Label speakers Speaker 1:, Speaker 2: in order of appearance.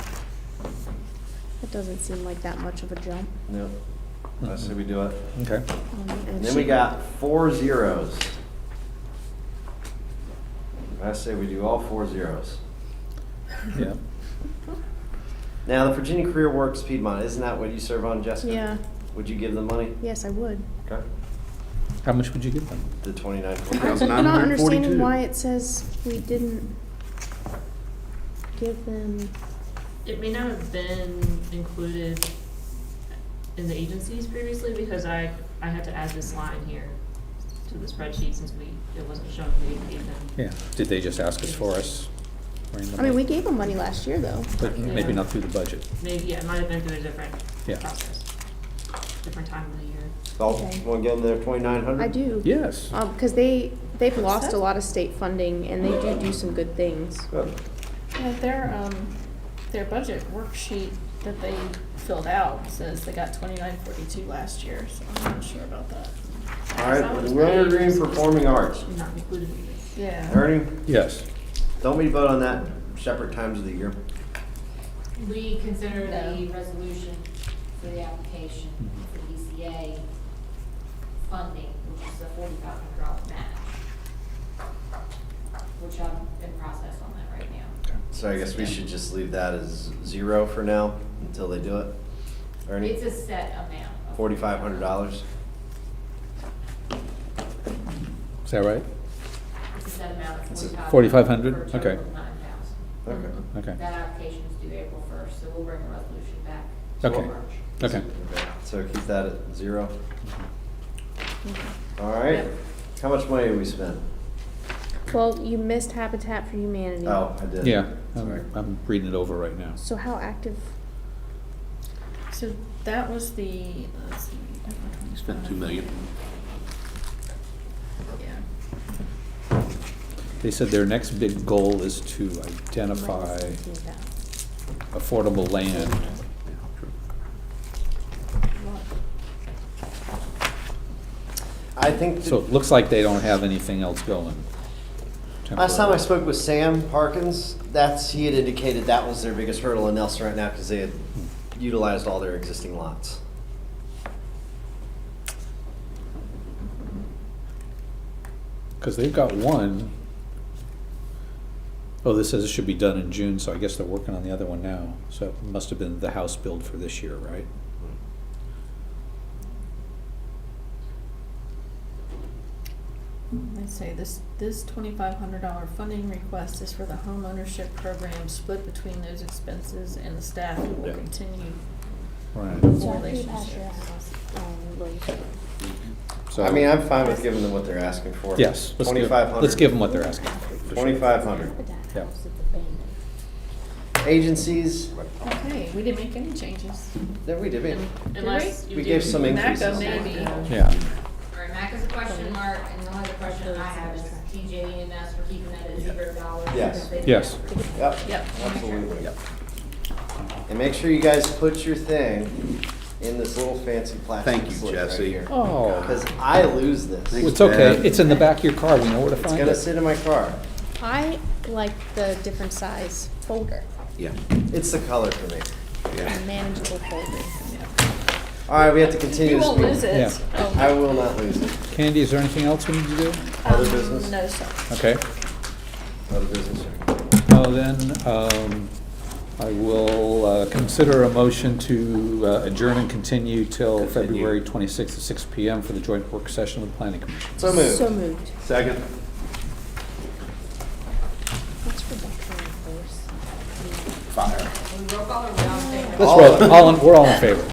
Speaker 1: doesn't seem like that much of a jump.
Speaker 2: No, I say we do it.
Speaker 3: Okay.
Speaker 1: Um, and
Speaker 2: And
Speaker 1: it
Speaker 2: then we
Speaker 1: should-
Speaker 2: got four zeros. I say we do all four zeros.
Speaker 3: Yeah.
Speaker 2: Now, the Virginia Career Works Piedmont, isn't that what you serve on, Jessica?
Speaker 1: Yeah,
Speaker 2: Would you give them money?
Speaker 1: yes, I would.
Speaker 2: Okay,
Speaker 3: How much would you give them?
Speaker 2: the twenty-nine.
Speaker 1: I'm not understanding why it says we didn't give them,
Speaker 4: It may not have been included in the agencies previously because I, I had to add this line here to the spreadsheet since we, it wasn't shown we gave them.
Speaker 3: Yeah. Did they just ask us for us?
Speaker 1: I mean, we gave them money last year, though.
Speaker 3: But maybe not through the budget.
Speaker 4: Maybe, yeah, it might have been through a different
Speaker 3: Yeah.
Speaker 4: process, different time of the year.
Speaker 2: Dalton, you wanna give them their twenty-nine hundred?
Speaker 1: I do.
Speaker 3: Yes.
Speaker 1: Um, cause they, they've lost a lot of state funding and they do do some good things.
Speaker 2: Good.
Speaker 5: Yeah, their, um, their budget worksheet that they filled out says they got twenty-nine forty-two last year, so I'm not sure about that.
Speaker 2: All right, Willard Green Performing Arts.
Speaker 4: Not included in this.
Speaker 5: Yeah.
Speaker 2: Ernie,
Speaker 3: Yes.
Speaker 2: don't we vote on that separate times of the year?
Speaker 6: We consider the
Speaker 5: No.
Speaker 6: resolution for the application for ECA funding, which is a forty-five hundred dollar match, which I'm in process on that right now.
Speaker 2: So I guess we should just leave that as zero for now until they do it. Ernie,
Speaker 6: It's a set amount. of-
Speaker 2: forty-five hundred dollars?
Speaker 3: Is that right?
Speaker 6: It's a set amount
Speaker 2: It's a-
Speaker 6: of forty-five hundred.
Speaker 3: $4,500?
Speaker 6: dollars
Speaker 3: Okay.
Speaker 6: nine thousand.
Speaker 2: Okay.
Speaker 3: Okay.
Speaker 6: That application is due April first, so we'll bring a resolution back.
Speaker 3: Okay.
Speaker 6: in March.
Speaker 3: Okay.
Speaker 2: So keep that at zero. All right, how much money did we spend?
Speaker 1: Well, you missed Habitat for Humanity.
Speaker 2: Oh, I did.
Speaker 3: Yeah.
Speaker 2: Sorry.
Speaker 3: I'm, I'm reading it over right now.
Speaker 1: So how active,
Speaker 5: So that was the, let's see.
Speaker 7: You spent two million.
Speaker 5: Yeah.
Speaker 3: They said their next big goal is to identify affordable land.
Speaker 2: I think,
Speaker 3: So
Speaker 2: th-
Speaker 3: it looks like they don't have anything else going.
Speaker 2: last time I
Speaker 3: temporarily.
Speaker 2: spoke with Sam Parkins, that's, he had indicated that was their biggest hurdle in Nelson right now because they had utilized all their existing lots.
Speaker 3: Because they've got one. Oh, this says it should be done in June, so I guess they're working on the other one now. So it must have been the house build for this year, right?
Speaker 5: I say this, this twenty-five hundred dollar funding request is for the home ownership program split between those expenses and the staff who will
Speaker 2: Yeah.
Speaker 5: continue
Speaker 3: Right.
Speaker 5: the relationships.
Speaker 3: So-
Speaker 2: I mean, I'm fine with giving them what they're asking for.
Speaker 3: Yes. let's give-
Speaker 2: Twenty-five hundred.
Speaker 3: Let's give them what they're asking. for, for sure.
Speaker 2: Twenty-five hundred.
Speaker 3: Yeah.
Speaker 2: Agencies,
Speaker 5: Okay, we didn't make any changes.
Speaker 2: no, we did, we,
Speaker 4: Unless you
Speaker 2: we
Speaker 4: do.
Speaker 2: gave some increases.
Speaker 5: NACA maybe.
Speaker 3: Yeah,
Speaker 6: All right, Mac is a question mark, and the only other question I have is TJ and S for keeping that at zero dollars.
Speaker 2: Yes.
Speaker 6: because they didn't
Speaker 3: yes.
Speaker 2: Yep.
Speaker 5: Yep.
Speaker 2: Absolutely. And make sure you guys put your thing in this little fancy plastic
Speaker 7: Thank you,
Speaker 2: slip
Speaker 7: Jesse.
Speaker 2: right here.
Speaker 3: Oh,
Speaker 2: Because I lose this.
Speaker 7: Thanks.
Speaker 3: it's okay. It's in the back of your car. We know where to
Speaker 2: It's
Speaker 3: find
Speaker 2: gonna
Speaker 3: it.
Speaker 2: sit in my car.
Speaker 1: I like the different size folder,
Speaker 7: Yeah,
Speaker 2: It's the color for me.
Speaker 1: the
Speaker 7: yeah.
Speaker 1: manageable folder.
Speaker 2: All right, we have to continue
Speaker 5: You
Speaker 2: this
Speaker 5: won't lose
Speaker 2: meeting.
Speaker 5: it.
Speaker 3: Yeah.
Speaker 5: Oh,
Speaker 2: I will not lose it.
Speaker 3: Candy, is there anything else we need to do?
Speaker 2: Other
Speaker 5: um,
Speaker 2: business?
Speaker 5: No, sir.
Speaker 3: Okay.
Speaker 2: Other business.
Speaker 3: Well, then, um, I will uh, consider a motion to uh, adjourn and continue till
Speaker 7: Continue.
Speaker 3: February 26th at 6 PM for the joint work session with the planning commission.
Speaker 2: So moved.
Speaker 1: So moved.
Speaker 7: Second.
Speaker 1: What's for Buckeye Horse?
Speaker 6: We roll call or we all say no?
Speaker 3: Let's roll, it. all, in- we're all in favor.